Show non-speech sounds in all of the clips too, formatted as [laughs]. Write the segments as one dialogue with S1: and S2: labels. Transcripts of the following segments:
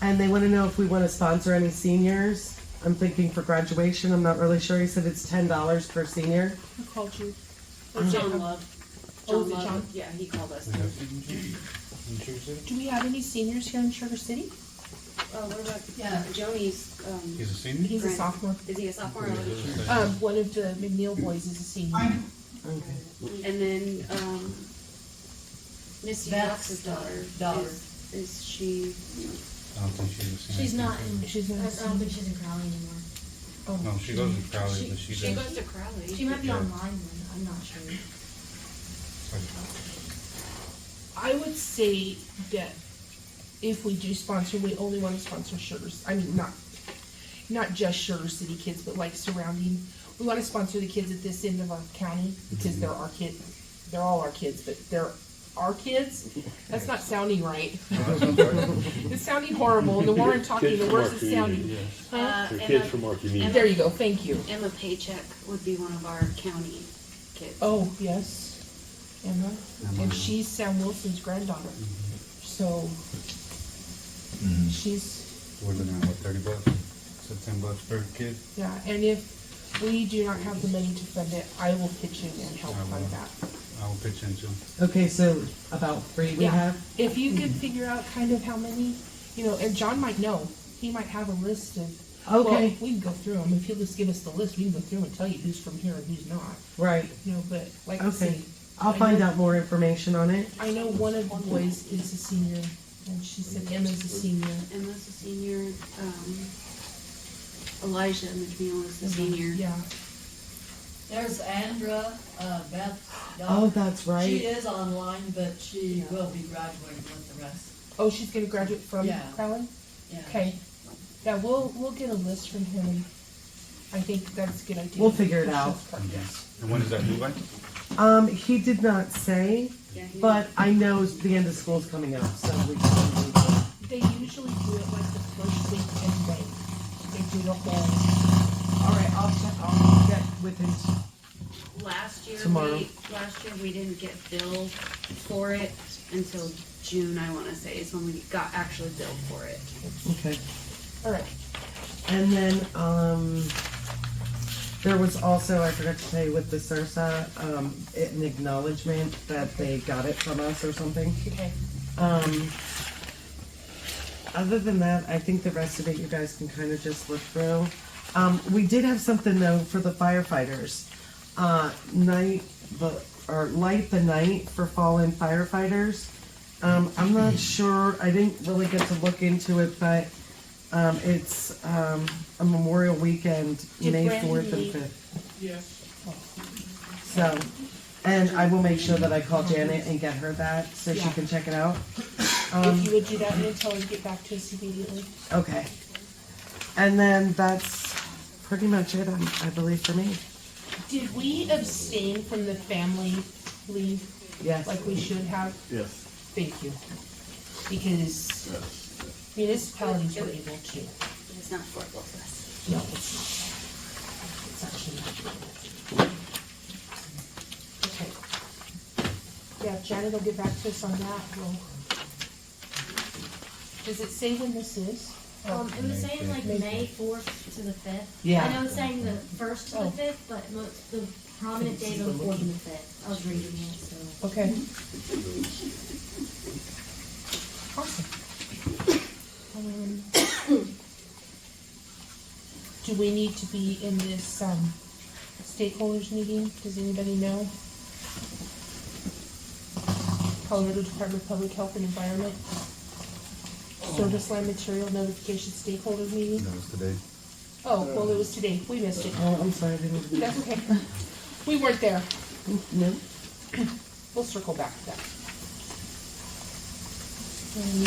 S1: And they want to know if we want to sponsor any seniors. I'm thinking for graduation. I'm not really sure. He said it's ten dollars per senior.
S2: Who called you?
S3: John Love.
S2: Oh, is it
S3: Love,
S2: John?
S3: Yeah, he called us.
S4: Yeah. In Sugar City?
S2: Do we have any seniors here in Sugar City?
S3: Oh, what about, yeah, Joni's, um,
S4: He's a senior?
S2: He's a
S3: Right.
S2: sophomore.
S3: is he a sophomore? or is he-
S2: Um, one of the McNeil boys is a senior.
S3: And then, um, Misty
S5: That's
S3: Fox's daughter.
S5: daughter.
S3: Is, is she,
S4: I don't think she's a senior.
S6: She's not in.
S2: She's not
S6: I don't think she's in Crowley anymore.
S4: Oh, No, she goes to Crowley,
S3: she,
S4: but she
S3: she
S4: does.
S3: goes to Crowley.
S6: She might be
S4: Yeah.
S6: online then. I'm not sure.
S2: I would say that if we do sponsor, we only want to sponsor Sugar, I mean, not, not just Sugar City kids, but like surrounding. We want to sponsor the kids at this end of our county because they're our kid, they're all our kids, but they're our kids. That's not sounding right. [laughs] It's sounding horrible. The more I'm talking,
S7: Kids
S2: the
S7: from our
S2: worse it's
S7: community,
S2: sounding.
S7: yes.
S2: Huh?
S3: Uh,
S7: They're
S3: Emma,
S7: kids from our community.
S2: There you go. Thank you.
S3: Emma Paycheck would be one of our county kids.
S2: Oh, yes, Emma. And
S4: Emma.
S2: she's Sam Wilson's granddaughter.
S1: Mm-hmm.
S2: So she's,
S4: What's it now, what, thirty bucks? So ten bucks per kid?
S2: yeah, and if we do not have the money to fund it, I will pitch in and help
S4: I
S2: fund
S4: will.
S2: that.
S4: I'll pitch into.
S1: Okay, so about three we
S2: Yeah.
S1: have. Mm-hmm.
S2: If you could figure out kind of how many, you know, and John might know, he might have a list of. well,
S1: Okay.
S2: We can go through them. If he'll just give us the list, we can go through and tell you who's from here and who's not,
S1: Right.
S2: you know, but like I
S1: Okay.
S2: say,
S1: I'll find out more information on it.
S2: I know one of the boys is a senior and she said Emma's a senior.
S3: Emma's a senior, um, Elijah McNeil is a senior.
S2: Yeah.
S5: There's Andra, uh, Beth.
S1: Oh,
S5: Dodd.
S1: that's
S5: She
S1: right.
S5: is online, but she will be graduating with the rest.
S2: Oh, she's gonna graduate from
S5: Yeah.
S2: Crowley?
S5: Yeah.
S2: Okay. Yeah, we'll, we'll get a list from him. and I think that's a good idea.
S1: We'll figure it
S2: Push
S1: out.
S2: this part.
S4: And when is that due by?
S1: Um, he did not say,
S3: Yeah, he-
S1: but I know the end of school's coming up, so we. can-
S2: They usually do it like the first week in May. They do the whole,
S1: All right, I'll check. I'll get with him.
S3: Last year,
S1: Tomorrow.
S3: we, last year, we didn't get billed for it until June, I wanna say, is when we got actually billed for it.
S1: Okay.
S2: all right.
S1: And then, um, there was also, I forgot to tell you with the Sursa, um, it- an acknowledgement that they got it from us or something.
S2: Okay.
S1: Um, other than that, I think the rest of it you guys can kind of just look through. Um, we did have something though for the firefighters. Uh, night, the, or light the night for fallen firefighters. Um, I'm not sure, I didn't really get to look into it, but, um, it's, um, a Memorial Weekend,
S2: Did
S1: May
S2: Brandy
S1: fourth and
S2: leave?
S1: fifth. Yes. So, and I will make sure that I call Janet and get her that, so she
S2: Yeah.
S1: can check it out. Um,
S2: If you would do that and then tell her to get back to us immediately.
S1: Okay. And then that's pretty much it, um, I believe, for me.
S2: Did we abstain from the family leave
S1: Yes.
S2: like we should have?
S7: Yes,
S2: Thank you. Because
S7: yes.
S2: municipalities were able to.
S3: It's not for both of us.
S2: No, it's not. It's actually not. Okay. Yeah, Janet will get back to us on that, we'll. Does it say when this is?
S6: Um, it was
S4: May
S6: saying like
S2: fifth.
S6: May fourth to the fifth.
S1: Yeah.
S6: I know it's saying the first to
S2: Oh.
S6: the fifth, but most, the prominent days are the fourth and the fifth. I was reading it, so.
S2: Okay. Awesome. Um, Do we need to be in this, um, stakeholders meeting? Does anybody know? Colorado Department of Public Health and Environment. Service line material notification stakeholder meeting.
S4: That was today.
S2: Oh, well, it was today. We missed it.
S1: Oh, I'm sorry, I didn't.
S2: That's okay. We weren't there.
S1: No.
S2: We'll circle back to that. Um,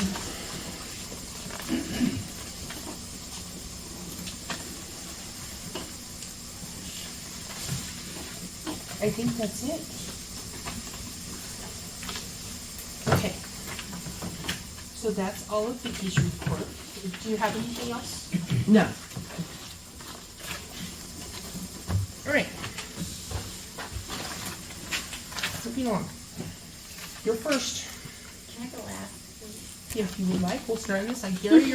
S2: I think that's it. Okay. So that's all of Vicky's report. Do you have anything else?
S1: No.
S2: All right. Moving on. You're first.
S6: Can I go last, please? [laughs]
S2: If you would like, we'll start on this. I dare you.